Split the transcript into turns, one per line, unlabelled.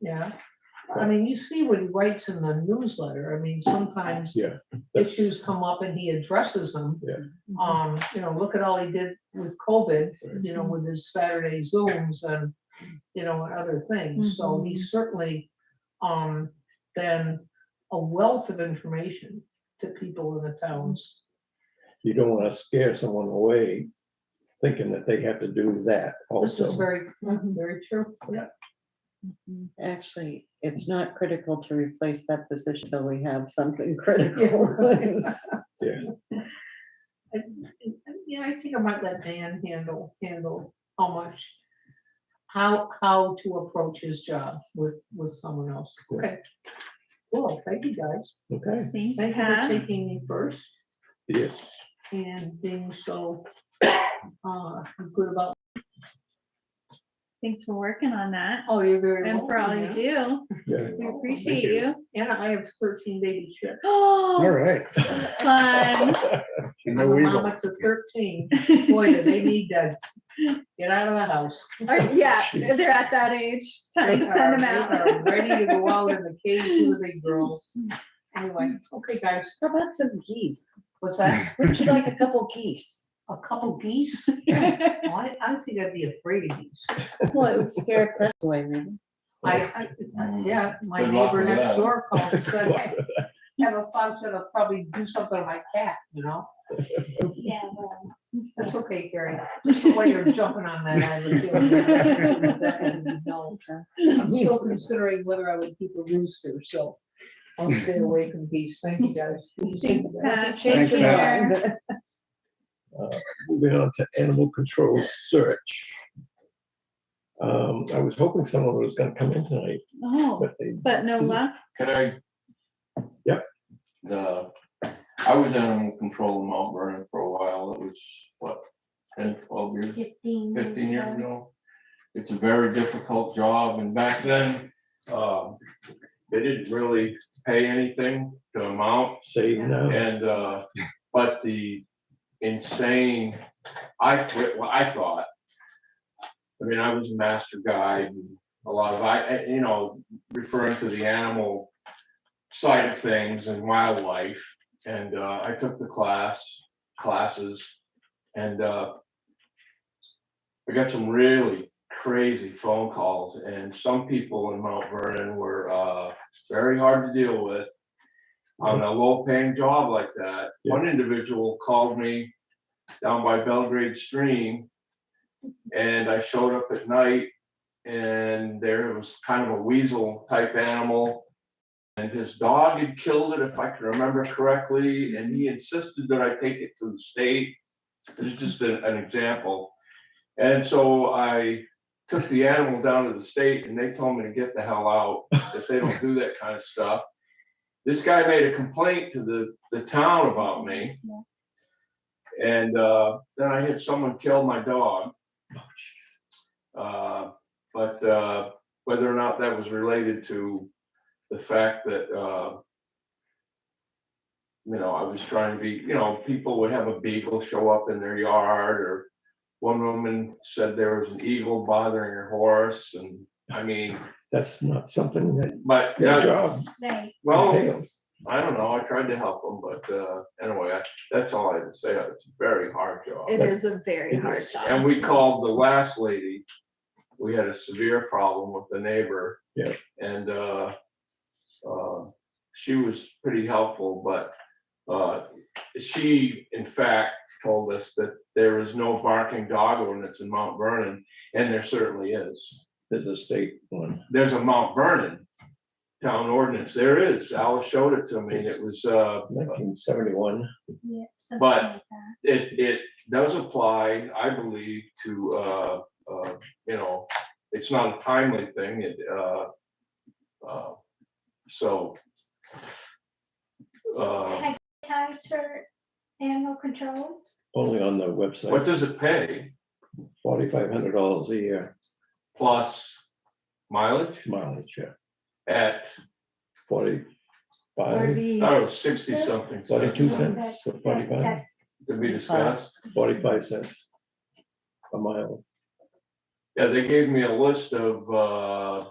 yeah. I mean, you see what he writes in the newsletter. I mean, sometimes
Yeah. that's-
issues come up and he addresses them.
Yeah.
Um, you know, look at all he did with COVID,
Right.
you know, with his Saturday Zooms and, you know, and other things. So he's certainly, um, been a wealth of information to people in the towns.
You don't want to scare someone away thinking that they have to do that
This is
also.
very, very true. Yeah.
Actually, it's not critical to replace that position till we have something critical.
Yeah, I think I might let Dan handle, handle how much, how, how to approach his job with, with someone else.
Yeah.
Okay. Well, thank you guys.
Okay,
Thank
Thank you
you,
for
Pat.
taking me first
yes,
and being so uh, good about,
Thanks for working on that
oh, you're very.
and for all
welcome,
you
yeah.
do.
yeah,
We
Thank
appreciate
Oh, you.
you.
And I have thirteen baby chicks.
all
Oh,
right.
fun.
I'm a mama to Thirteen, boy, do they need to get out of the house.
Or- Yeah,
Jeez.
they're at that age. Time
They
to send them
are-
out.
they are Ready to go out in the cage with the big girls. Anyway, okay, guys,
How about some geese?
what's that?
Would you like a couple geese?
A couple geese? Oh, I, I think I'd be afraid of geese.
Well, it would scare a person away, maybe.
I, I,
Mm.
yeah, my
Good luck
neighbor
with
next
that.
door called, and said, "Hey, have a fun, said I'll probably do something to my cat, you know?
Yeah.
That's okay, Carrie, just the way you're jumping on that. I would do it. No, I'm still considering whether I would keep a rooster, so I'll stay away from geese, thank you guys.
Thanks, Pat.
Change
Thanks,
your
Pat.
mind.
Moving on to animal control search. Um, I was hoping someone was gonna come in tonight,
Oh,
but they,
but no luck.
Could I?
Yep.
The, I was animal control in Mount Vernon for a while. It was what, 10, 12 years,
Fifteen.
fifteen years ago. It's a very difficult job and back then, uh, they didn't really pay anything to mount.
say now,
And, uh, but the insane, I quit, well, I thought. I mean, I was a master guide, and a lot of, I, I- you know, referring to the animal side of things and wildlife. And, uh, I took the class, classes, and, uh, I got some really crazy phone calls and some people in Mount Vernon were, uh, very hard to deal with on a low paying job like that.
Yeah.
One individual called me down by Belgrade Stream. And I showed up at night and there was kind of a weasel type animal. And his dog had killed it, if I can remember correctly, and he insisted that I take it to the state. It's just an, an example. And so I took the animal down to the state and they told me to get the hell out, if they don't do that kind of stuff this guy made a complaint to the, the town about me. And, uh, then I had someone kill my dog. Uh, but, uh, whether or not that was related to the fact that, uh, you know, I was trying to be, you know, people would have a beagle show up in their yard or one woman said there was an eagle bothering her horse and, I mean,
that's not something that
but,
your
yeah,
job
Right.
well.
entails.
I don't know, I tried to help them, but uh, anyway, I- that's all I had to say, it's a very hard job.
It is a very hard
And
job.
we called the last lady, we had a severe problem with the neighbor.
Yeah.
And uh, uh, she was pretty helpful, but uh, she in fact told us that there is no barking dog ordinance in Mount Vernon, and there certainly is.
There's a state one.
There's a Mount Vernon town ordinance, there is, Alice showed it to me, and it was uh,
1971.
But- it, it does apply, I believe, to, uh, uh, you know, it's not a timely thing, it, uh, uh, so. Uh,
times for animal control?
only on the
what
website,
does it pay
forty-five hundred dollars a year
plus mileage
mileage, yeah,
at,
Or
forty-five,
I
geese.
don't know, sixty something
forty-two
cents
cents, or forty-five,
That's-
to be discussed?
forty-five cents a mile.
Yeah, they gave me a list of, uh,